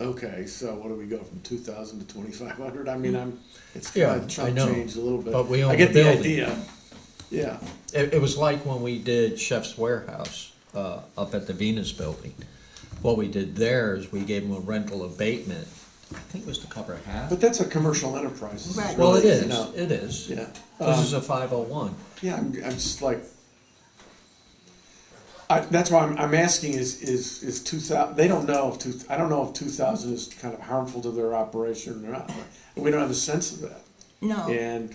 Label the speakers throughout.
Speaker 1: Okay, so what do we go from two thousand to twenty-five hundred? I mean, I'm, it's
Speaker 2: Yeah,
Speaker 1: kind of
Speaker 2: I
Speaker 1: chump
Speaker 2: know,
Speaker 1: changed a little bit.
Speaker 2: but we
Speaker 1: I
Speaker 2: own
Speaker 1: get
Speaker 2: the
Speaker 1: the
Speaker 2: building.
Speaker 1: idea. Yeah,
Speaker 2: It, it was like when we did Chef's Warehouse, uh, up at the Venus Building. What we did there is we gave them a rental abatement, I think it was to cover half.
Speaker 1: but that's a commercial enterprise. This is
Speaker 3: Right.
Speaker 2: Well, it
Speaker 1: really, you
Speaker 2: is,
Speaker 1: know,
Speaker 2: it is.
Speaker 1: Yeah.
Speaker 2: This
Speaker 1: Um,
Speaker 2: is a five oh one.
Speaker 1: Yeah, I'm, I'm just like, I, that's why I'm, I'm asking is, is, is two thousand, they don't know if two, I don't know if two thousand is kind of harmful to their operation or not. We don't have a sense of that.
Speaker 3: No.
Speaker 1: And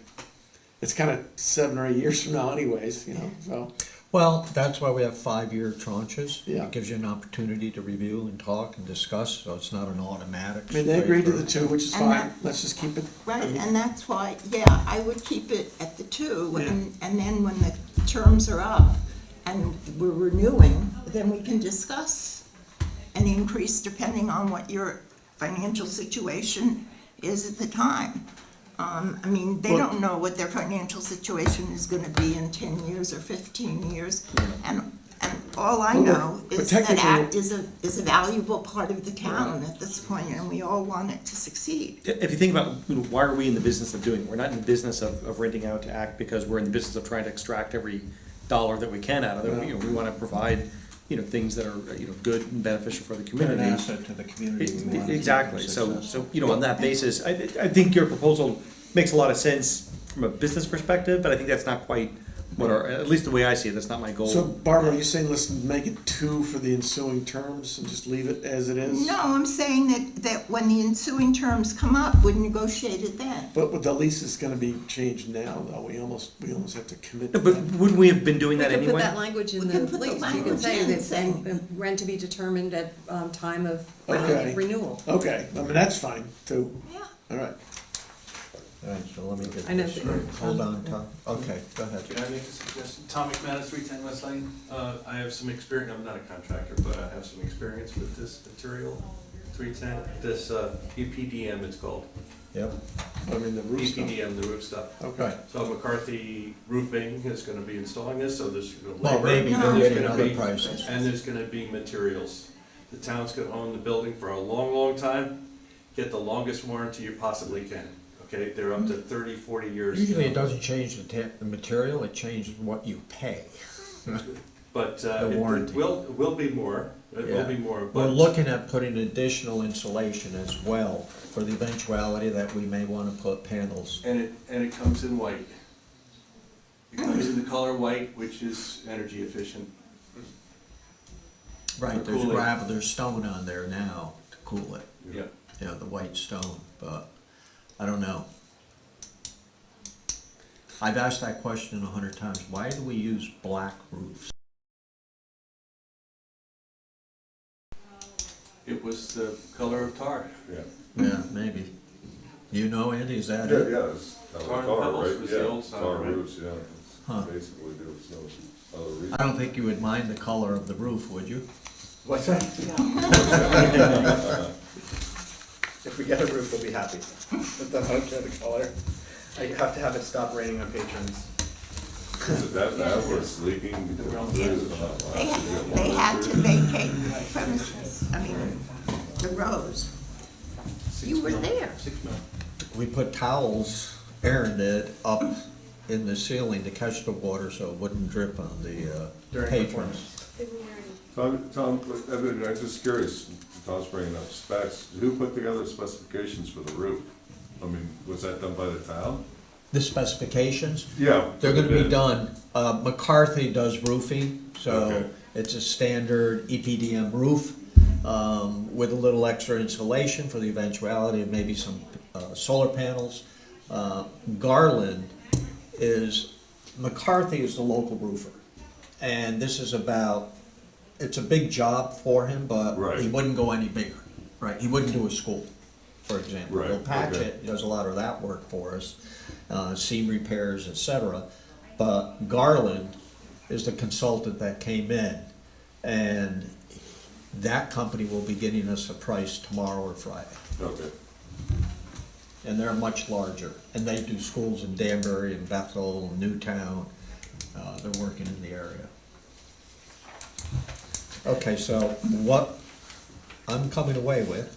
Speaker 1: it's kind of seven or eight years from now anyways, you know, so,
Speaker 2: Well, that's why we have five-year tranches.
Speaker 1: Yeah.
Speaker 2: It gives you an opportunity to review and talk and discuss, so it's not an automatic.
Speaker 1: I mean, they agreed to the
Speaker 2: straight
Speaker 1: two, which is
Speaker 3: And
Speaker 1: fine.
Speaker 3: that-
Speaker 1: Let's just keep it.
Speaker 3: Right,
Speaker 1: I mean,
Speaker 3: and that's why, yeah, I would keep it at the two,
Speaker 1: Yeah.
Speaker 3: and, and then when the terms are up and we're renewing, then we can discuss an increase depending on what your financial situation is at the time. Um, I mean, they
Speaker 1: Well-
Speaker 3: don't know what their financial situation is gonna be in ten years or fifteen years. And, and all I
Speaker 1: Well,
Speaker 3: know
Speaker 1: but
Speaker 3: is that
Speaker 1: technically-
Speaker 3: ACT is a, is a valuable part of the town at this point, and we all want it to succeed.
Speaker 4: If you think about, you know, why are we in the business of doing, it? we're not in the business of, of renting out to act because we're in the business of trying to extract every dollar that we can out of it. You know, we wanna provide, you know, things that are, you know, good and beneficial for the
Speaker 5: They're
Speaker 4: community.
Speaker 5: an asset to the community.
Speaker 6: E-,
Speaker 5: We want to
Speaker 4: Ex-
Speaker 5: keep them
Speaker 4: Exactly, so,
Speaker 5: successful.
Speaker 4: so, you know, on that basis, I, I think your proposal makes a lot of sense from a business perspective, but I think that's not quite what our, at least the way I see it, that's not my goal.
Speaker 1: So Barbara, are you saying let's make it two for the ensuing terms and just leave it as it is?
Speaker 3: No, I'm saying that, that when the ensuing terms come up, we negotiate it then.
Speaker 1: But with the lease is gonna be changed now, though. We almost, we almost have to commit to
Speaker 4: No, But
Speaker 1: that.
Speaker 4: wouldn't we have been doing that
Speaker 6: We could put
Speaker 4: anyway?
Speaker 6: that language in
Speaker 3: We
Speaker 6: the
Speaker 3: can put the
Speaker 6: lease, you
Speaker 3: language
Speaker 6: could say
Speaker 3: in
Speaker 6: that
Speaker 3: saying-
Speaker 6: um, rent to be determined at um, time of um,
Speaker 1: Okay.
Speaker 6: renewal.
Speaker 1: Okay, I mean, that's fine, too.
Speaker 3: Yeah.
Speaker 1: All right.
Speaker 2: All right, so let me get
Speaker 6: I know
Speaker 2: this
Speaker 6: that-
Speaker 2: straight. Hold on, Tom. Okay, go ahead.
Speaker 7: Can I make a suggestion? Tom McManus, three ten West Lane. Uh, I have some experience, I'm not a contractor, but I have some experience with this material, three ten, this, uh, EPDM it's called. E
Speaker 2: Yep.
Speaker 1: I mean, the roof stuff.
Speaker 7: EPDM, the roof stuff.
Speaker 1: Okay.
Speaker 7: So McCarthy Roofing is gonna be installing this, so there's gonna
Speaker 2: Well,
Speaker 7: labor.
Speaker 2: maybe
Speaker 3: they're
Speaker 7: there's
Speaker 2: getting
Speaker 7: gonna
Speaker 2: other
Speaker 7: be-
Speaker 2: prices.
Speaker 7: And there's gonna be materials. The town's gonna own the building for a long, long time. Get the longest warranty you possibly can, okay? They're up to 30, 40 years.
Speaker 2: Usually it doesn't change the ta- the material, it changes what you pay.
Speaker 7: But uh,
Speaker 2: The
Speaker 7: it-
Speaker 2: warranty.
Speaker 7: it will, it will be more, it will
Speaker 2: Yeah.
Speaker 7: be more,
Speaker 2: We're
Speaker 7: but
Speaker 2: looking at putting additional insulation as well for the eventuality that we may wanna put panels.
Speaker 7: and it, and it comes in white. It comes in the color white, which is energy efficient.
Speaker 2: Right, there's
Speaker 7: Cool it.
Speaker 2: gravel, there's stone on there now to cool it,
Speaker 7: Yeah.
Speaker 2: you know, the white stone, but I don't know. I've asked that question a hundred times, why do we use black roofs?
Speaker 7: It was the color of tar.
Speaker 8: Yeah,
Speaker 2: Yeah, maybe. You know, Andy, is that
Speaker 8: yeah,
Speaker 2: it?
Speaker 8: yeah, it's kind of
Speaker 7: Tar and
Speaker 8: tar,
Speaker 7: pebbles
Speaker 8: right?
Speaker 7: was
Speaker 8: Yeah,
Speaker 7: the old style,
Speaker 8: Tar
Speaker 7: right?
Speaker 8: roofs, yeah,
Speaker 2: Huh.
Speaker 8: It's basically, there was no other reason.
Speaker 2: I don't think you would mind the color of the roof, would you?
Speaker 4: What's that? If we get a roof, we'll be happy. But I don't care the color. I have to have it stop raining on patrons.
Speaker 8: Is it That, that was leaking. because it uh, was not
Speaker 3: They,
Speaker 8: last year.
Speaker 3: they had to vacate the premises, I mean, the rows. You were there.
Speaker 7: Six mil.
Speaker 2: We put towels, Aaron did, up in the ceiling to catch the water so it wouldn't drip on the uh,
Speaker 4: During
Speaker 2: patrons.
Speaker 8: Tom, Tom, I mean, I'm just curious, Tom's bringing up specs, who put together specifications for the roof? I mean, was that done by the town?
Speaker 2: The specifications,
Speaker 8: Yeah.
Speaker 2: they're gonna be
Speaker 8: bid.
Speaker 2: done, uh, McCarthy does roofing, so
Speaker 8: Okay.
Speaker 2: it's a standard E EPDM roof um, with a little extra insulation for the eventuality of maybe some uh, solar panels. Uh, Garland is, McCarthy is the local roofer. And this is about, it's a big job for him, but he
Speaker 8: Right.
Speaker 2: wouldn't go any bigger, right? He wouldn't do a school, for example.
Speaker 8: Right,
Speaker 2: He'll patch
Speaker 8: okay.
Speaker 2: it, does a lot of that work for us, uh, seam repairs, et cetera. But Garland is the consultant that came in, and that company will be getting us a price tomorrow or Friday.
Speaker 8: Okay,
Speaker 2: And they're much larger, and they do schools in Danbury and Bethel and Newtown, uh, they're working in the area. Okay, so what I'm coming away with